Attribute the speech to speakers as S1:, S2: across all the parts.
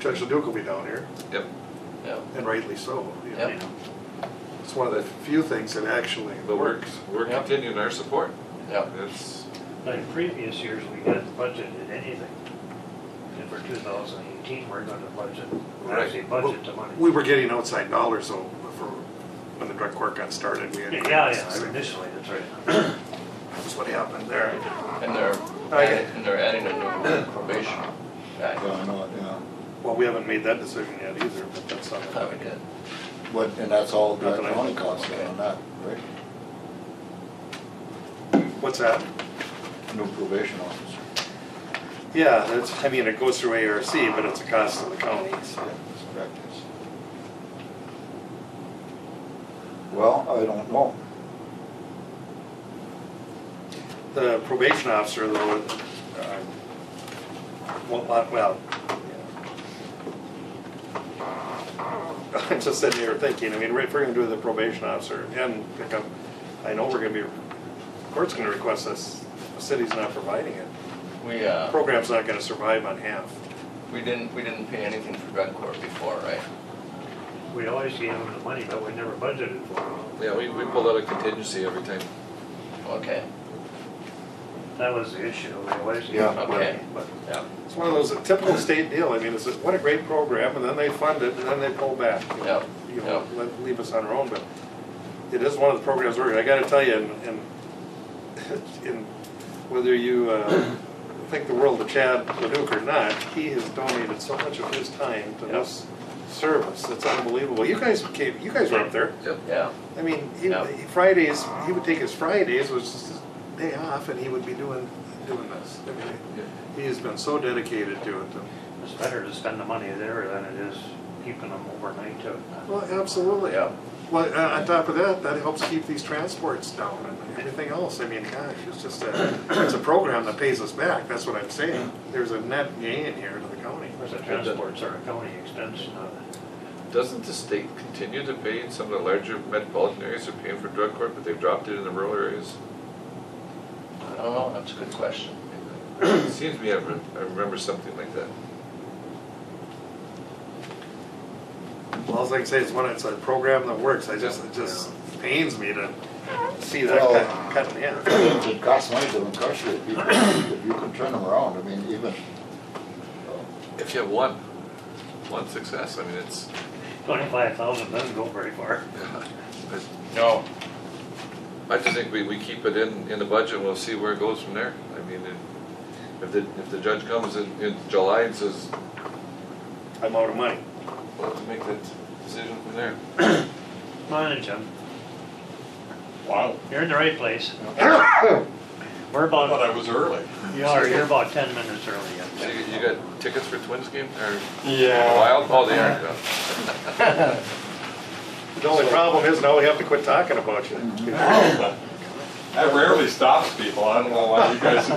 S1: Judge Leduc will be down here,
S2: Yep.
S3: yeah.
S1: and rightly so, you know.
S3: Yep.
S1: It's one of the few things that actually
S2: But we're,
S1: works.
S2: we're
S3: Yep.
S2: continuing our support.
S3: Yep.
S2: It's,
S4: Like previous years, we hadn't budgeted anything. And for two thousand eighteen, we're gonna budget,
S2: Right.
S4: actually budget the money.
S1: We were getting outside dollars though, for, when the drug court got started, we had.
S4: Yeah, yeah, initially, that's right.
S1: That's what happened there.
S3: And they're,
S1: I get
S3: adding- and they're adding a new probation guy.
S5: Yeah, I know, yeah.
S1: Well, we haven't made that decision yet either, but that's uh,
S3: I
S1: something.
S3: thought we did.
S5: But, and that's all
S1: Not
S5: direct
S1: that I
S5: county
S1: know.
S5: costs then on that, right?
S1: What's that?
S5: New probation officer.
S1: Yeah, that's, I mean, it goes through ARC, but it's a cost to the county,
S5: Yeah,
S1: so.
S5: that's correct, yes. Well, I don't know.
S1: The probation officer though, uh, well, not- well. I'm just sitting here thinking, I mean, if we're gonna do the probation officer and pick up, I know we're gonna be, court's gonna request this, the city's not providing it.
S3: We, uh,
S1: Program's not gonna survive on half.
S3: we didn't, we didn't pay anything for drug court before, right?
S4: We always gave them the money, but we never budgeted for them.
S2: yeah, we, we pulled out a contingency every time.
S3: Okay,
S4: That was the issue, we always gave
S5: Yeah.
S4: them the money,
S3: Okay.
S4: but
S3: yeah,
S1: It's one of those a typical state deal, I mean, it's, a- what a great program, and then they fund it, and then they pull back. you know.
S3: Yep,
S1: You know,
S3: yep.
S1: let- leave us on our own, but it is one of the programs we're, I gotta tell you, and, and, in whether you, uh, think the world of Chad Leduc or not, he has donated so much of his time to this service, it's unbelievable. You guys came, you guys were up there,
S2: Yep.
S3: yeah,
S1: I mean, he,
S3: Yeah.
S1: Fridays, he would take his Fridays, which is his day off, and he would be doing, doing this. I mean,
S2: Yeah.
S1: he has been so dedicated to it.
S4: it's better to spend the money there than it is keeping them overnight to.
S1: Well, absolutely.
S3: yeah.
S1: Well, uh, on top of that, that helps keep these transports down and everything else. I mean, gosh, it's just a, it's a program that pays us back. That's what I'm saying. There's a net gain here to the county.
S4: Of course, the transports are a county expense, not
S2: Doesn't the state continue to pay, some of the larger metropolitan areas are paying for drug court, but they've dropped it in the rural areas?
S3: I don't know, that's a good question.
S2: It Seems to me I re- I remember something like that.
S1: Well, all I can say is one, it's a program that works. I just, it just pains me to see that
S5: Well-
S1: cut- cut in half.
S5: It costs money to incarcerate people, if you can turn them around, I mean, even, uh,
S2: If you have one, one success, I mean, it's,
S4: twenty-five thousand doesn't go very far.
S3: No,
S2: I just think we, we keep it in, in the budget, and we'll see where it goes from there. I mean, if- if the, if the judge comes in, in July and says,
S1: I'm out of money.
S2: we'll have to make that decision from there.
S4: Come on in, Jim,
S6: Wow.
S4: you're in the right place. We're
S6: I thought
S4: about,
S6: I was early.
S4: you are, you're about ten minutes early. yeah.
S2: So you, you got tickets for Twins game, or
S6: Yeah.
S2: Wild? Oh, they are,
S1: The only problem is now we have to quit talking about you.
S6: That rarely stops people. I don't know why you guys.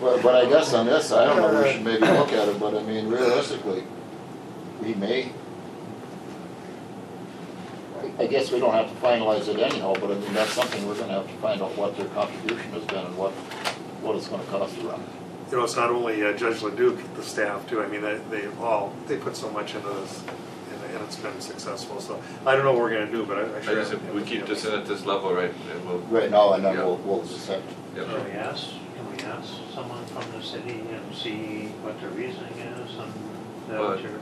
S5: but, but I guess on this, I don't know, we should maybe look at it, but I mean, realistically, we may. I- I guess we don't have to finalize it anyhow, but I mean, that's something we're gonna have to find out what their contribution has been and what, what it's gonna cost to run. it.
S1: You know, it's not only uh, Judge Leduc, the staff too, I mean, they, they all, they put so much into this, and and it's been successful, so I don't know what we're gonna do, but I- I
S2: I
S1: sure.
S2: just, we keep this in at this level, right, and we'll,
S5: Right now, and then we'll, we'll just have to
S2: yep.
S4: Can we ask, can we ask someone from the city and see what their reasoning is and that
S2: Well,
S4: what your,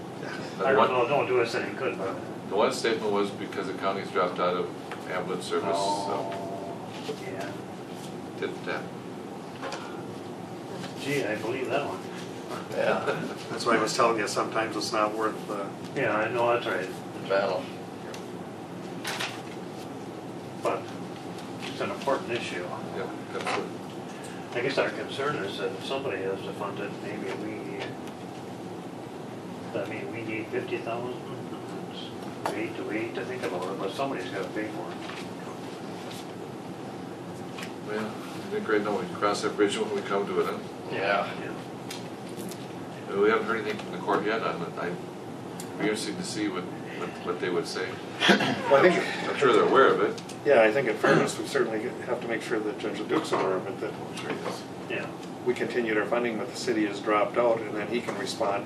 S2: And
S4: I
S2: one-
S4: don't know, don't do us any good, but.
S2: The one statement was because the county's dropped out of ambulance service, so
S4: Oh, Yeah,
S2: did that.
S4: gee, I believe that one.
S3: yeah,
S1: That's why I was telling you, sometimes it's not worth, uh,
S4: Yeah, I know, that's right,
S3: the battle,
S4: but it's an important issue.
S2: Yep, absolutely.
S4: I guess our concern is that if somebody has to fund it, maybe we, I mean, we need fifty thousand. We hate to, we hate to think about it, but somebody's gotta pay for it.
S2: Well, I think right now we can cross that bridge when we come to it, huh?
S3: yeah.
S4: Yeah.
S2: And We haven't heard anything from the court yet, I'm, I'd be interested to see what, what, what they would say.
S1: well, I think,
S2: I'm sure they're aware of it.
S1: yeah, I think in fairness, we certainly have to make sure that Judge Leduc's aware of it, that
S2: I'm sure he does.
S4: Yeah.
S1: we continued our funding, but the city has dropped out, and then he can respond